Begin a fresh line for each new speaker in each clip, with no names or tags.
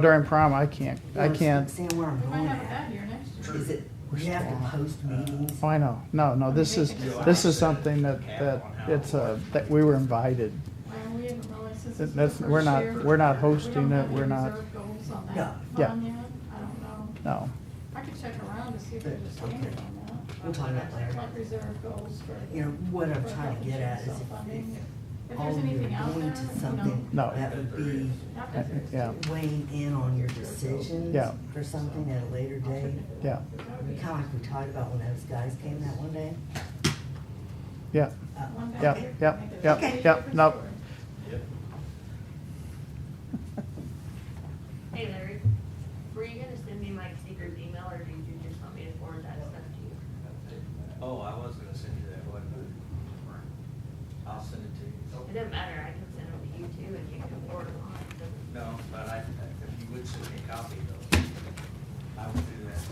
During prom, I can't, I can't,
Understand where I'm
We might
going
have it done
at.
here next year.
Is it, you have to post meetings?
oh, I know, no, no, this is, this is something that, that, it's a, that we were invited.
Well, Um, we didn't realize this
That-
is
that's-
the
we're
first
not-
year.
we're not
We
hosting
don't
it,
have any
we're not-
reserve goals on
No.
that
Yeah.
fund yet. I don't know.
No,
I could check around to see if there's a standard on that.
We'll talk about that.
Like reserve goals for.
You know, what I'm
for
trying to get at is if-
health insurance
if
self-funding. If
all
there's
you're
anything out there,
going
you
to
know,
something
No.
that would be
not that there's-
Yeah.
weighing in on your decisions
Yeah.
for something at a later date.
yeah,
Kind of like we talked about when those guys came that one day.
yeah,
Uh,
One day.
yeah,
okay.
yeah, yeah,
Okay.
yeah, nope.
Yep.
Hey Larry, were you gonna send me Mike Seeger's email or did you just want me to forward that stuff to you?
Oh, I was gonna send you that, wasn't I? I'll send it to
It
you.
doesn't matter, I can send it to you too and you can forward it on. so-
No, but I, if you would send me a copy though, I would do that.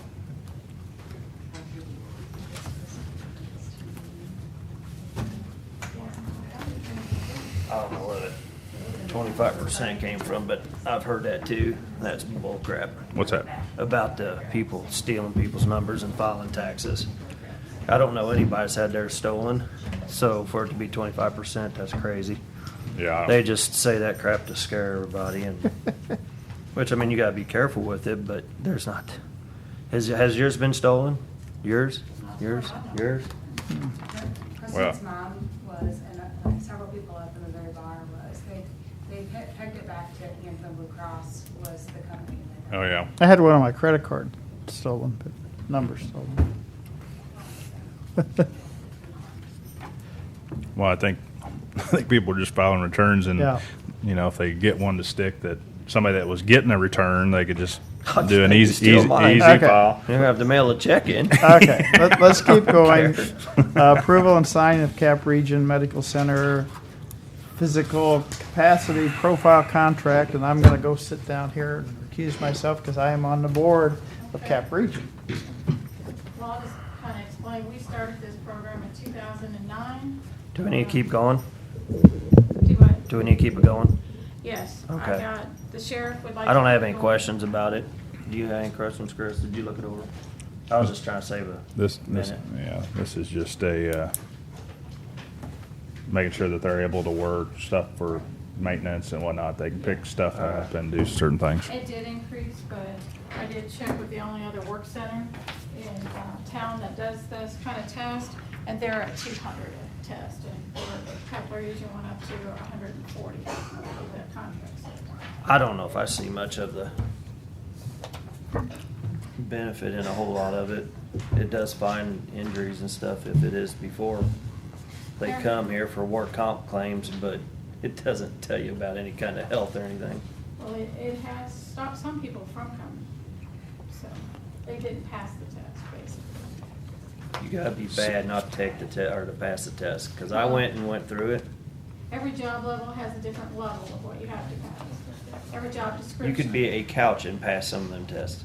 I don't know where that twenty-five percent came from, but I've heard that too. That's bull crap.
What's that?
About the people stealing people's numbers and filing taxes. I don't know anybody's had theirs stolen, so for it to be twenty-five percent, that's crazy.
Yeah. I
They
don't-
just say that crap to scare everybody and, which, I mean, you gotta be careful with it, but there's not. Has, has yours been stolen? Yours? Yours? Yours?
Well-
Kristen's mom was, and uh, several people up in the very bar was, they, they pe- pegged it back to Anthem Blue Cross was the company. that-
Oh, yeah.
I had one of my credit card stolen, but numbers stolen.
Well, I think, I think people are just filing returns and,
Yeah.
you know, if they get one to stick that somebody that was getting a return, they could just
I'll
do an
just
easy,
steal
easy,
mine.
easy
Okay.
file.
You have to mail a check in.
Okay, let, us keep
I
going.
don't
Uh, Approval and signing of Cap Region Medical Center physical capacity profile contract, and I'm gonna go sit down here and recuse myself because I am on the board of Cap Region.
Well, I'll just kind of explain, we started this program in two thousand and nine.
Do we need to keep going?
Do what?
Do we need to keep it going?
Yes, I
Okay.
got, the sheriff would like.
I don't
to-
have any questions about it. Do you have any questions, Chris? Did you look it over? I was just trying to save a
This, this,
minute.
yeah, this is just a, uh, making sure that they're able to work stuff for maintenance and whatnot. They can pick stuff up and do certain things.
It did increase, but I did check with the only other work center in uh, town that does this kind of test, and they're at two hundred a test, and for Kepler region went up to hundred and forty of that contract.
I don't know if I see much of the benefit in a whole lot of it. It does find injuries and stuff if it is before they come here for work comp claims, but it doesn't tell you about any kind of health or anything.
Well, it, it has stopped some people from coming, so they didn't pass the test, basically.
You gotta be bad not to take the te, or to pass the test, cause I went and went through it.
Every job level has a different level of what you have to pass, every job description.
You could be a couch and pass some of them tests.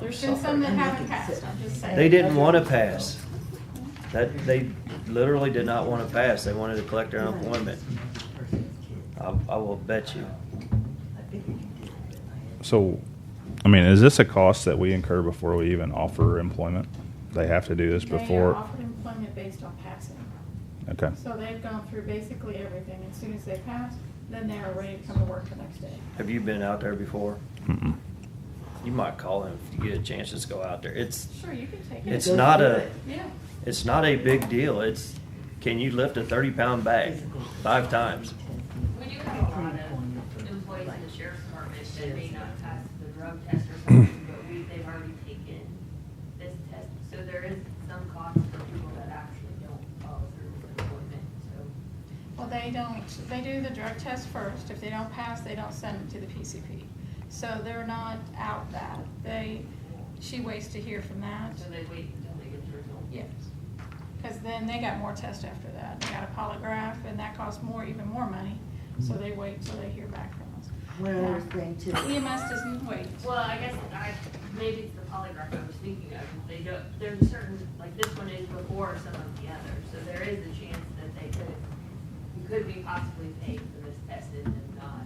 There's been some that haven't passed, I'm just saying.
They didn't wanna pass. That, they literally did not wanna pass. They wanted to collect their unemployment. I, I will bet you.
So, I mean, is this a cost that we incur before we even offer employment? They have to do this
They are
before?
offered employment based on passing.
Okay.
So they've gone through basically everything. As soon as they pass, then they are ready to come to work the next day.
Have you been out there before?
Mm-mm.
You might call him if you get a chance, just go out there. It's,
Sure, you can take it.
it's not a,
Yeah.
it's not a big deal. It's, can you lift a thirty pound bag five times?
We do have a lot of employees in the sheriff's department that may not pass the drug test or something, but we, they've already taken this test. So there is some cost for people that actually don't follow through with employment, so.
Well, they don't, they do the drug test first. If they don't pass, they don't send them to the PCP. So they're not out that. They, she waits to hear from that.
So they wait until they get the result.
Yes. Because then they got more tests after that. They got a polygraph and that costs more, even more money. So
Mm-hmm.
they wait till they hear back from us.
One other thing too.
EMS doesn't wait.
Well, I guess I, maybe it's the polygraph I was thinking of, they don't, there's a certain, like this one is before some of the others, so there is a chance that they could could we possibly pay for this tested and not